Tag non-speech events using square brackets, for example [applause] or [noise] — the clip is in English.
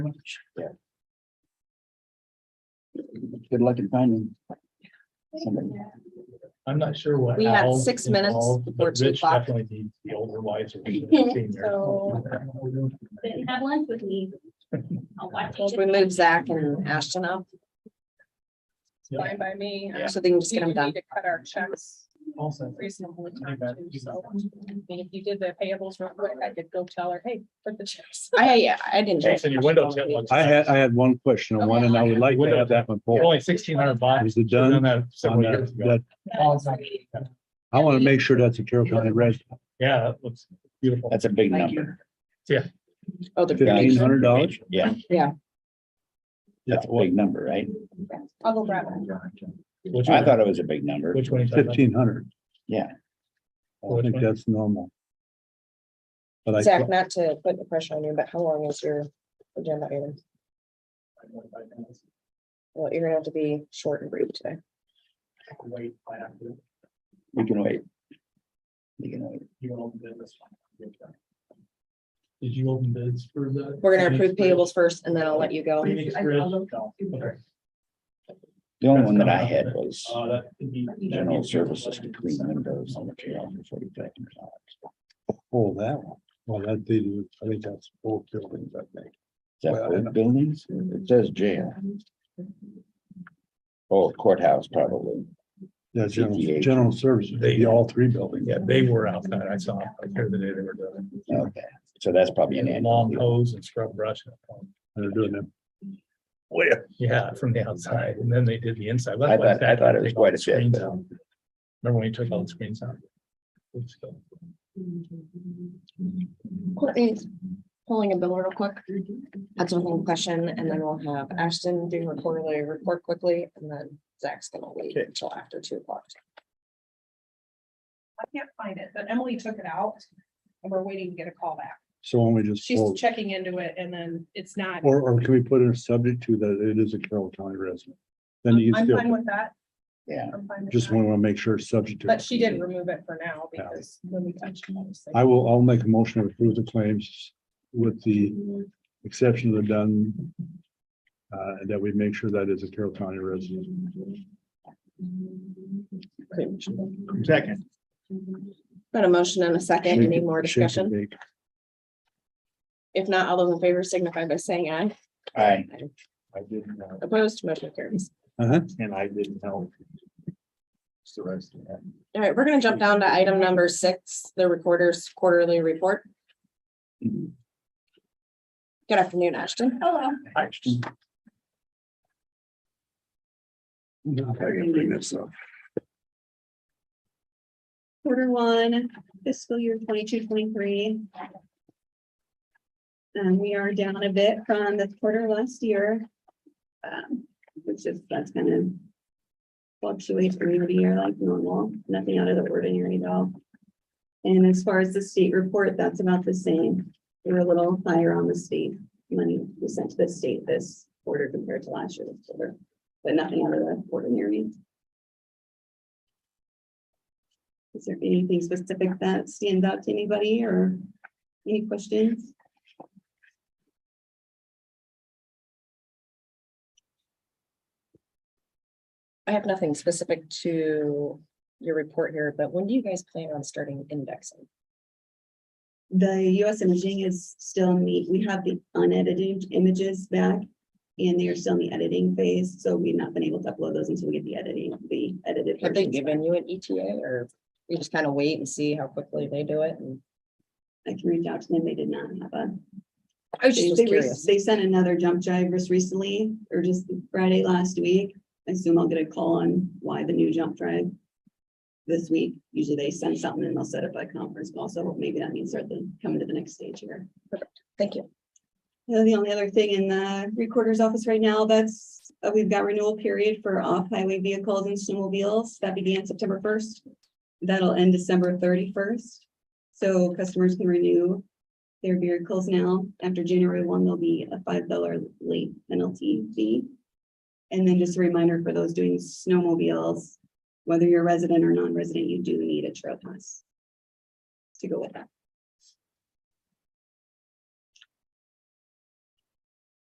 Good luck in finding. somebody. I'm not sure what. We have Al's six minutes involved, before but two Rich o'clock. Definitely needs the older wiser. [laughs] So- senior. But Have lunch with me. I'll watch Well, if we it. move Zach and Ashton up, Yeah. Fine by me. Yeah. so they can just We get do them done. need to cut our checks Also, reasonably I time bet too, you- so. I mean, if you did the payables real quick, I could go tell her, hey, put the checks. I, I didn't. Oh, Jason, your window's got one. I had, I had one question on one and I would like to have that one pulled. Only sixteen hundred bucks. Is it done? Done that on several that- years ago. that- I want to make sure that's a Carroll County resident. Yeah, that looks beautiful. That's a big number. Oh, the Fifteen donation. hundred dollars? Yeah. Yeah. That's a big number, right? I'll go grab it. Which I one? thought it was a big number. Which one? are you talking about? Fifteen hundred. Yeah. I think that's normal. But I, Zach, not to put the pressure on you, but how long is your agenda item? Well, you're gonna have to be short and brief today. Wait, I have to. We can wait. We can wait. You open this one. Did you open bids for the? We're gonna approve payables first and then I'll let you go. Phoenix Bridge? No. Okay. The only one that I had was Uh, that could be- general services between windows on the trail for forty thousand dollars. oh, that one. Well, that they do, I think that's both buildings, I think. Is that Well, I know. both buildings? It says jail. Oh, courthouse probably. That's general, CTA. general services, maybe all three buildings. Yeah, they were outside. I saw, I heard the day they were doing. it. Okay, so that's probably an And annual. Long deal. hose and scrub brush. They're doing them. Yeah, from the outside. And then they did the inside. I thought- I thought it was quite a bit, Screens but- out. Remember when you took all the screens out? Oops, so- Courtney's pulling a bill real quick. That's one question, and then we'll have Ashton do her quarterly report quickly, and then Zach's gonna wait Okay. until after two o'clock. I can't find it, but Emily took it out and we're waiting to get a call back. So when we just, She's pull- checking into it and then it's not. or, or can we put in a subject to that it is a Carroll County resident? Then you I'm still, fine with that. Yeah, I'm fine with just that. want to make sure it's subject to. But she did remove it for now Yeah. because when we touched. on this, like- I will, I'll make a motion to approve the claims with the exception of the done. Uh, and that we make sure that is a Carroll County resident. Second. Got a motion and a second, any more Shake and discussion? bake. If not, all those in favor signify by saying aye. I, I didn't know. Opposed, motion carries. Uh-huh. And I didn't know. It's the rest of that. All right, we're gonna jump down to item number six, the recorder's quarterly report. Mhm. Good afternoon, Ashton. Hello. I gotta bring this up. quarter one fiscal year 22-23. And Um, we are down a bit from the quarter last year. um, Which is, that's kind of fluctuates from year to year like normal, nothing out of the ordinary at all. And as far as the state report, that's about the same. We're a little higher on the state money we sent to the state this quarter compared to last year's quarter, but nothing out of the ordinary. Is there anything specific that stands out to anybody or any questions? I have nothing specific to your report here, but when do you guys plan on starting indexing? The US imaging is still neat. We have the unedited images back. And they are still in the editing phase, so we've not been able to upload those until we get the editing, the edited. Have they versions back. given you an ETA or you just kind of wait and see how quickly they do it? And I can reach out to them. They did not have a. I was They, just they re- curious. they sent another jump drive just recently, or just Friday last week. I assume I'll get a call on why the new jump drive. This week, usually they send something and they'll set up a conference call, so maybe that means they're coming to the next stage here. Thank you. You know, the only other thing in the recorder's office right now, that's, uh, we've got renewal period for off-highway vehicles and snowmobiles that began September first. That'll end December thirty-first, so customers can renew their vehicles now. After January one, there'll be a five dollar late penalty fee. And then just a reminder for those doing snowmobiles, whether you're a resident or non-resident, you do need a trail pass to go with that.